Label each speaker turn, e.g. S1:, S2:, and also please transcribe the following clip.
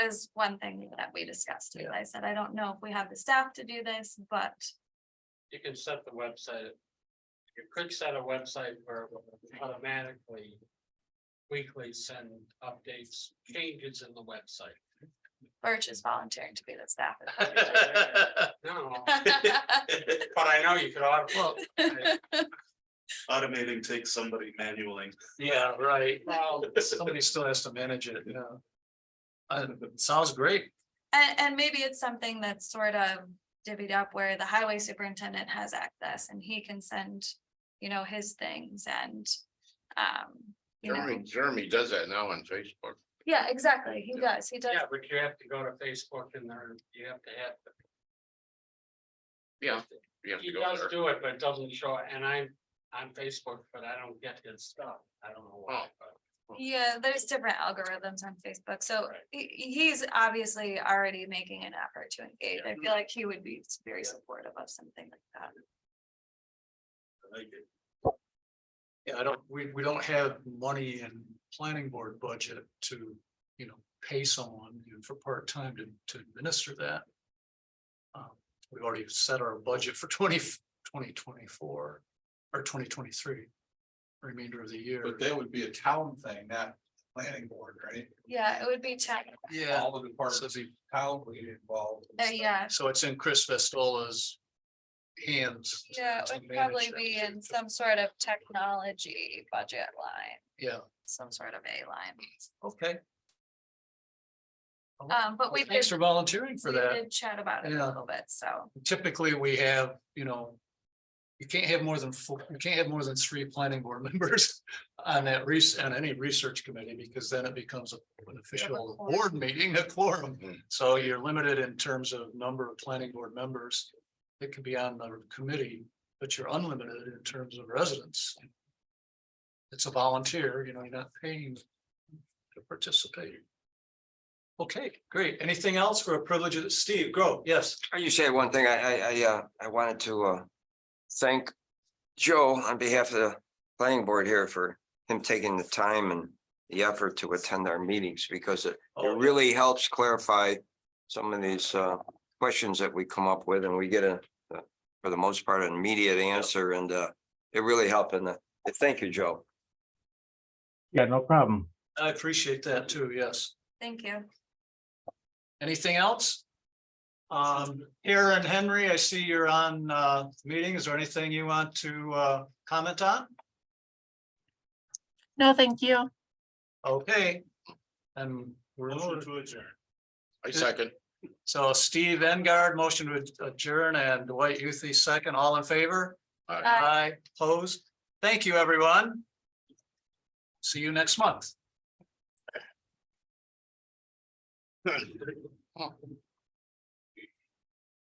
S1: is one thing that we discussed. and I said, I don't know if we have the staff to do this, but
S2: you can set the website. You could set a website where it will automatically. Weekly send updates, changes in the website.
S1: Birch is volunteering to be the staff.
S2: No, but I know you could. auto-
S3: Well,
S4: Automating takes somebody manually.
S3: yeah, right. Well, somebody still has to manage it, you know. Uh, sounds great.
S1: And, and maybe it's something that's sort of divvied up where the highway superintendent has access and he can send, you know, his things and, um, you know.
S5: Jeremy, Jeremy does that now on Facebook.
S1: Yeah, exactly. He does. He does.
S2: Yeah, but you have to go to Facebook and there, you have to have. the-
S5: Yeah. You have
S2: He
S5: to go
S2: does
S5: there.
S2: do it, but it doesn't show, and I'm on Facebook, but I don't get his stuff. I don't know why,
S5: Oh.
S2: but
S1: Yeah, there's different algorithms on Facebook. So
S2: Right.
S1: he, he's obviously already making an effort to engage. I feel like he would be very
S2: Yeah.
S1: supportive of something like that.
S4: I like it.
S3: Yeah, I don't, we, we don't have money in planning board budget to, you know, pay someone you know, for part-time to, to administer that. Um, We've already set our budget for 20 2024 or twenty twenty-three. Remainder of the year.
S6: But that would be a town thing, not planning board, right?
S1: Yeah, it would be tech.
S3: Yeah.
S6: All the departments
S3: So
S6: of
S3: it'd be-
S6: town would be involved.
S1: Uh, yeah,
S3: so it's in Chris Vestola's hands. to-
S1: yeah,
S3: to
S1: it would
S3: manage
S1: probably
S3: that.
S1: be in some sort of technology budget line,
S3: Yeah,
S1: some sort of A line.
S3: okay.
S1: Um, but we
S3: Well,
S1: did,
S3: Thanks for volunteering for
S1: we
S3: that.
S1: did chat about it a
S3: Yeah.
S1: little bit, so.
S3: typically we have, you know. You can't have more than four, you can't have more than three planning board members on that res- on any research committee, because then it becomes a- an official
S1: quorum.
S3: board meeting, a quorum.
S5: Mhm.
S3: So you're limited in terms of number of planning board members that can be on the committee, but you're unlimited in terms of residents. It's a volunteer, you know, you're not paying to participate. Okay, great. Anything else for a privilege of Steve? Go, yes.
S7: Uh, You said one thing, I, I, I, uh, I wanted to, uh, thank Joe on behalf of the planning board here for him taking the time and the effort to attend our meetings, because it it
S3: Oh,
S7: really helps clarify some of these, uh, questions that we come up with, and we get a, uh, for the most part, an immediate answer, and, uh, it really helped, and, uh, thank you, Joe.
S8: Yeah, no problem.
S3: I appreciate that too, yes.
S1: Thank you.
S3: Anything else? Um, Aaron Henry, I see you're on uh meeting. Is there anything you want to uh comment on?
S9: No, thank you.
S3: Okay. And we're,
S4: Motion to adjourn.
S5: I second.
S3: so Steve Engard, motion to adjourn and Dwight Youthy second, all in favor?
S1: Aye.
S3: Aye, opposed. Thank you, everyone. See you next month.